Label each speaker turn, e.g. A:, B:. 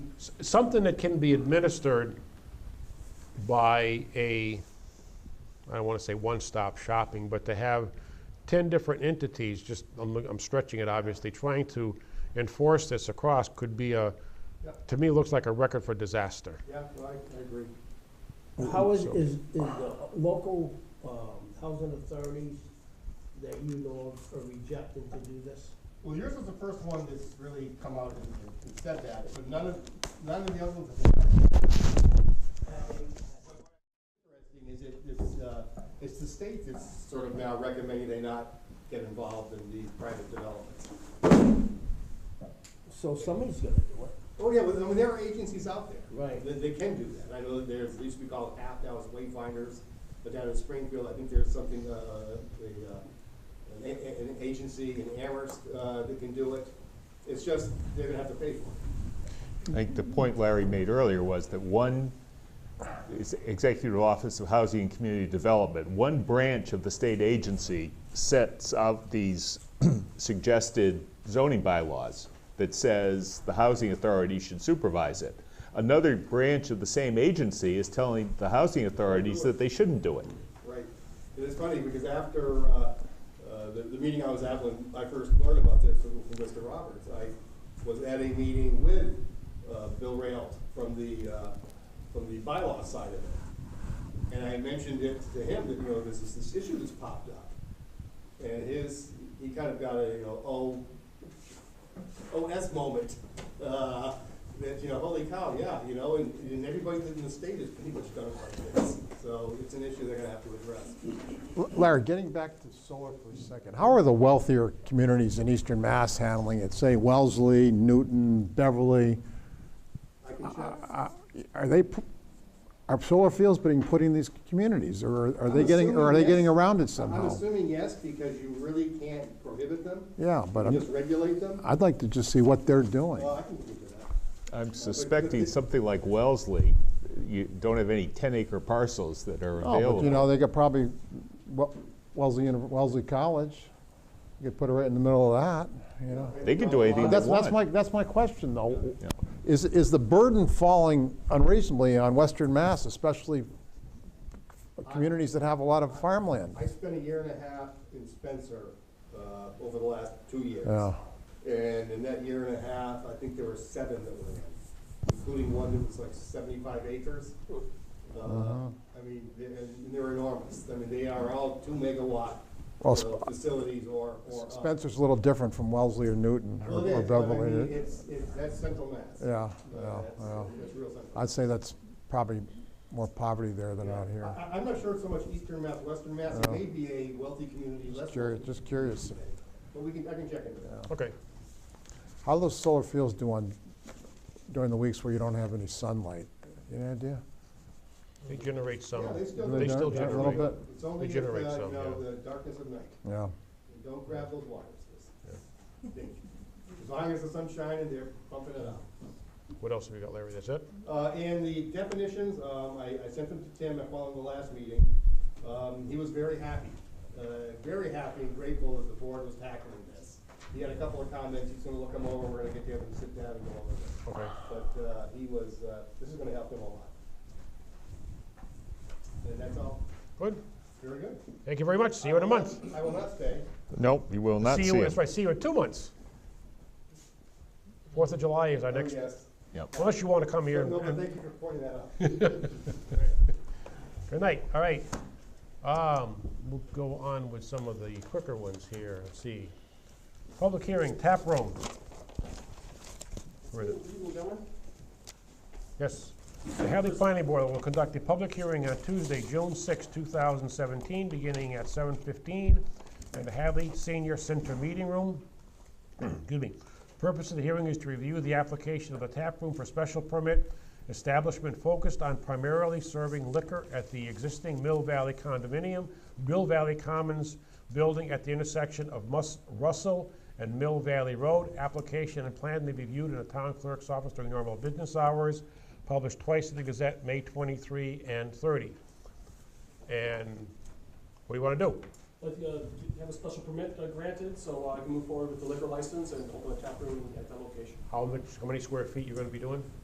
A: s- something that can be administered by a, I don't want to say one-stop shopping, but to have 10 different entities, just, I'm look- I'm stretching it obviously, trying to enforce this across could be a,
B: Yep.
A: to me, looks like a record for disaster.
B: Yeah, well, I, I agree.
C: How is,
A: So-
C: is, is the local, um, housing authorities that you know of are rejecting to do this?
B: Well, yours was the first one that's really come out and, and said that, but none of, none of the other ones have been. Interesting Is it, it's, uh, it's the state that's sort of now recommending they not get involved in these private developments.
C: So somebody's gonna do it.
B: Oh, yeah, well, I mean, there are agencies out there.
C: Right.
B: That, they can do that. I know that there's, they used to be called app, now it's Wayfinders, but down in Springfield, I think there's something, uh, a, uh, an, a- an agency in Amherst, uh, that can do it. It's just, they're gonna have to pay for it.
D: I think the point Larry made earlier was that one, is Executive Office of Housing and Community Development, one branch of the state agency sets out these suggested zoning bylaws that says the housing authority should supervise it. Another branch of the same agency is telling the housing authorities that they shouldn't do it.
B: Right. And it's funny, because after, uh, uh, the, the meeting I was at when I first learned about this from, from Mr. Roberts, I was at a meeting with, uh, Bill Rayolt from the, uh, from the bylaw side of it. And I mentioned it to him that, you know, this is this issue that's popped up. And his, he kind of got a, you know, oh, OS moment, uh, that, you know, holy cow, yeah, you know, and, and everybody in the state has pretty much done it like this. So it's an issue they're gonna have to address.
E: Larry, getting back to solar for a second, how are the wealthier communities in eastern Mass handling it? Say Wellesley, Newton, Beverly,
B: I can check.
E: are they, pu- are solar fields being put in these communities? Or are- are they
B: I'm
E: getting, or are they
B: assuming
E: getting
B: yes.
E: around it
B: I'm
E: somehow?
B: assuming yes, because you really can't prohibit them,
E: Yeah, but
B: you just
E: I'm-
B: regulate them.
E: I'd like to just see what they're doing.
B: Well, I can look into that.
D: I'm suspecting something like Wellesley, you don't have any 10-acre parcels that are
E: Oh, but you
D: available.
E: know, they could probably, Wel- Wellesley, Uni- Wellesley College, you could put it right in the middle of that, you know?
D: They can do anything they
E: That's, that's
D: want.
E: my, that's my question, though. Is, is the burden falling unreasonably on Western Mass, especially communities that have a lot of farmland?
B: I spent a year and a half in Spencer, uh, over the last two years.
E: Yeah.
B: And in that year and a half, I think there were seven that were in, including one that was like seventy-five acres. Uh,
E: Uh-huh.
B: I mean, they're- and they're enormous. I mean, they are all two megawatt,
E: Well,
B: you know, facilities or, or. up.
E: Spencer's a little different from Wellesley or Newton or
B: Well, it
E: or
B: is, but I mean,
E: Beverly.
B: it's, it's, that's central mass.
E: Yeah,
B: Uh,
E: yeah,
B: that's-
E: yeah.
B: That's real central.
E: I'd say that's probably more poverty there than
B: Yeah.
E: out here.
B: I, I'm not sure it's so much eastern Mass, western Mass, it may be a wealthy community, less.
E: Just curious,
B: wealthy
E: just curious.
B: community. But we can, I can check into that.
A: Okay.
E: How do those solar fields do on, during the weeks where you don't have any sunlight? You have Any idea?
A: They generate some,
B: Yeah, they still
A: they
B: do.
A: still
E: Yeah, a
A: generate.
E: little bit.
B: It's only
A: They
B: if, uh,
A: generate
B: you
A: some,
B: know,
A: yeah.
B: the darkness of night,
E: Yeah.
B: and don't grab those wires, Think. As long as the sun's shining, they're pumping it out.
A: What else have you got, Larry? That's it?
B: Uh, and the definitions, um, I, I sent them to Tim at following the last meeting. Um, he was very happy, uh, very happy and grateful that the board was tackling this. He had a couple of comments, he's gonna look them over, we're gonna get together and sit down and go over them.
A: Okay.
B: But, uh, he was, uh, this is gonna help him a lot. And that's all.
A: Good.
B: Very good.
A: Thank you very much. See you in a month.
B: I will not stay.
D: Nope, you will not
A: See
D: see
A: you, that's
D: it.
A: right, see you in two months. Fourth of July is our
B: Oh,
A: next,
B: Yes.
D: Yep.
A: unless you want to come here.
B: No, but
A: and-
B: thank you for pointing that out.
A: Good night, all right. Um, We'll go on with some of the quicker ones here. Let's see. Public hearing, tap room. Where is it? Yes. The Hadley Planning Board will conduct a public hearing on Tuesday, June 6, 2017, beginning at 7:15 in the Hadley Senior Center Meeting Room. Excuse me. Purpose of the hearing is to review the application of a tap room for special permit establishment focused on primarily serving liquor at the existing Mill Valley condominium, Mill Valley Commons building at the intersection of Mus- Russell and Mill Valley Road. Application and plan may be viewed in the town clerk's office during normal business hours, published twice in the Gazette, May 23 and 30. And what do you want to do?
F: Like, uh, have a special permit uh, granted, so I can move forward with the liquor license and open a tap room at that location.
A: How much, how many square feet you're going to be doing?